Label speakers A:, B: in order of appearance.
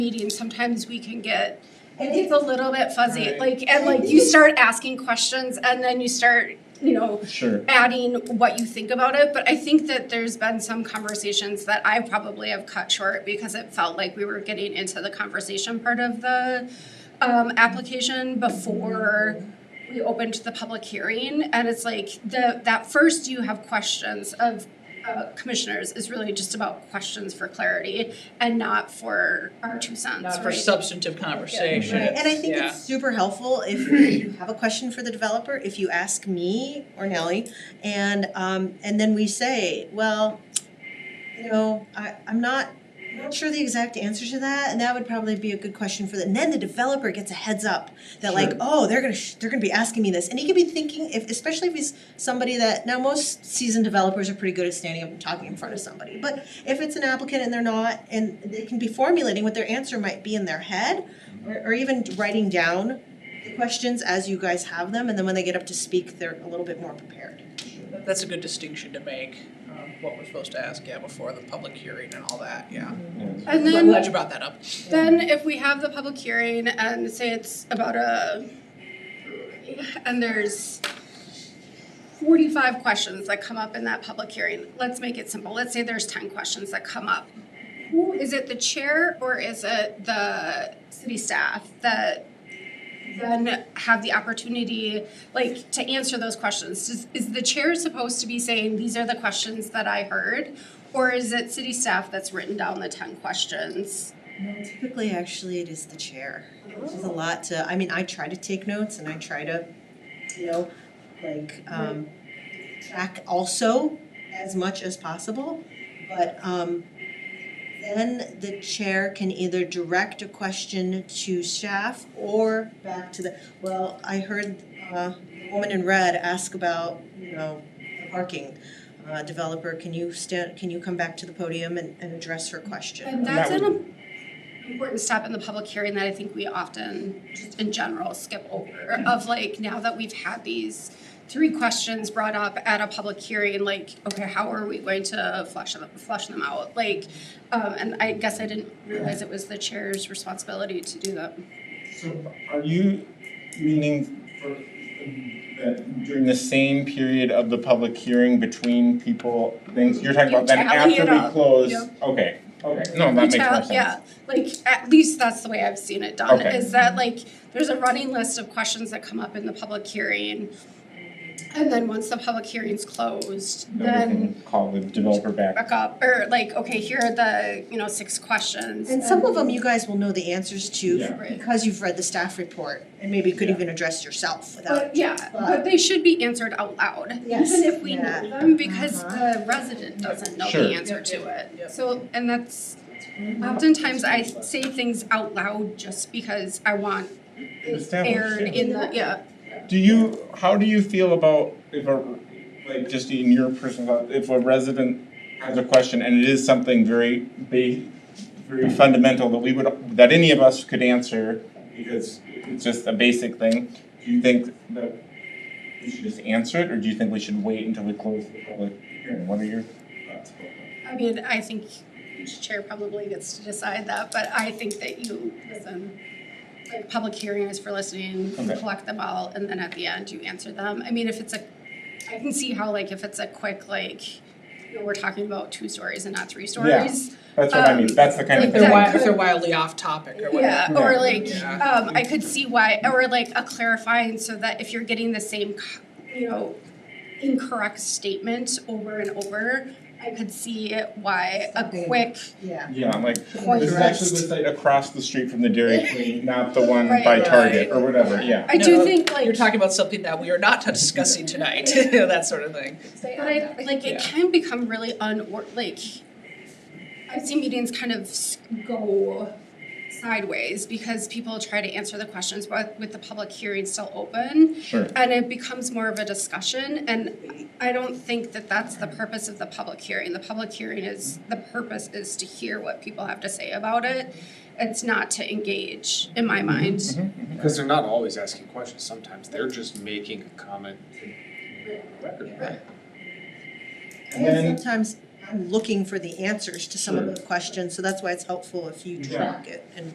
A: meetings, sometimes we can get,
B: And
A: it's a little bit fuzzy,
C: Right.
A: like, and like you start asking questions and then you start, you know,
C: Sure.
A: adding what you think about it, but I think that there's been some conversations that I probably have cut short because it felt like we were getting into the conversation part of the um application before we opened the public hearing, and it's like the that first you have questions of uh commissioners is really just about questions for clarity and not for our two cents,
D: Not for
A: right?
D: substantive conversation.
B: Right, and I think
D: Yeah.
B: it's super helpful if you have a question for the developer, if you ask me or Nellie, and um and then we say, well, you know, I I'm not I'm not sure the exact answer to that, and that would probably be a good question for the, and then the developer gets a heads up that like,
C: Sure.
B: oh, they're gonna, sh- they're gonna be asking me this, and he could be thinking, if, especially if he's somebody that, now most seasoned developers are pretty good at standing up and talking in front of somebody, but if it's an applicant and they're not, and they can be formulating what their answer might be in their head, or, or even writing down the questions as you guys have them, and then when they get up to speak, they're a little bit more prepared.
D: That's a good distinction to make, um, what we're supposed to ask, yeah, before the public hearing and all that, yeah.
A: And
D: I'm
A: then
D: glad you brought that up.
A: Then if we have the public hearing and say it's about a, and there's forty-five questions that come up in that public hearing, let's make it simple, let's say there's ten questions that come up. Who, is it the chair or is it the city staff that then have the opportunity, like, to answer those questions? Is, is the chair supposed to be saying, these are the questions that I heard? Or is it city staff that's written down the ten questions?
B: Typically, actually, it is the chair. Which is a lot to, I mean, I try to take notes and I try to, you know, like, um, track also as much as possible. But, um, then the chair can either direct a question to staff or back to the, well, I heard, uh, the woman in red ask about, you know, parking. Uh, developer, can you stand, can you come back to the podium and, and address her question?
A: And that's
C: that
A: an im- important step in the public hearing that I think we often, just in general, skip over of like, now that we've had these three questions brought up at a public hearing, like, okay, how are we going to flush them, flush them out? Like, um, and I guess I didn't realize it was the chair's responsibility to do that.
C: So are you meaning for, that during the same period of the public hearing between people, things, you're talking
A: You
C: about then
A: tally
C: after
A: it
C: we
A: up,
C: close?
A: yep.
C: Okay, okay, no, that makes more
A: Retail-
C: sense.
A: Yeah, like, at least that's the way I've seen it done,
C: Okay.
A: is that like, there's a running list of questions that come up in the public hearing. And then once the public hearing's closed,
C: Then we
A: then
C: can call the developer back.
A: back up, or like, okay, here are the, you know, six questions.
B: And some of them you guys will know the answers
C: Yeah.
B: to
A: Right.
B: because you've read the staff report and maybe could
C: Yeah.
B: even address yourself without.
A: But yeah, but they should be answered out loud,
B: Yes.
A: even if we
B: Yeah.
A: know them, because
B: Uh-huh.
A: the resident doesn't know
C: Sure.
A: the answer to it.
D: Yep.
A: So, and that's, oftentimes I say things out loud just because I want it
C: Established,
A: aired
C: yeah.
A: in the, yeah,
C: Do you, how do you feel about if a, like, just in your personal, thought, if a resident has a question and it is something very ba- very fundamental that we would, that any of us could answer because it's just a basic thing, do you think that we should just answer it, or do you think we should wait until we close the public hearing? What are your thoughts?
A: I mean, I think each chair probably gets to decide that, but I think that you listen. Like, public hearing is for listening, you
C: Okay.
A: collect them all, and then at the end, you answer them. I mean, if it's a, I can see how like if it's a quick like, you know, we're talking about two stories and not three stories.
C: That's what I mean,
A: Um,
C: that's the kind of
A: like
D: If
C: thing.
D: they're
A: that
D: wi- if they're wildly off topic or whatever.
A: Yeah, or
C: Yeah.
A: like,
D: Yeah.
A: um, I could see why, or like a clarifying so that if you're getting the same, co- you know, incorrect statement over and over, I could see why a
B: Something.
A: quick
B: Yeah.
C: Yeah, I'm like,
A: Or
C: this is
B: direct.
C: actually the site across the street from the Dairy Queen, not the one by
A: Right.
C: Target or whatever, yeah.
A: I do
D: No,
A: think like,
D: You're talking about something that we are not discussing tonight, that sort of thing.
A: but I, like
D: Yeah.
A: it can become really unor, like, I've seen meetings kind of s- go sideways because people try to answer the questions but with the public hearing still open.
C: Sure.
A: And it becomes more of a discussion and I don't think that that's the purpose of the public hearing. The public hearing is, the purpose is to hear what people have to say about it. It's not to engage, in my mind.
E: Because they're not always asking questions, sometimes they're just making a comment. Record.
C: And then-
B: And sometimes I'm looking for the answers to some of
C: Sure.
B: the questions, so that's why it's helpful if you
C: Yeah.
B: track it and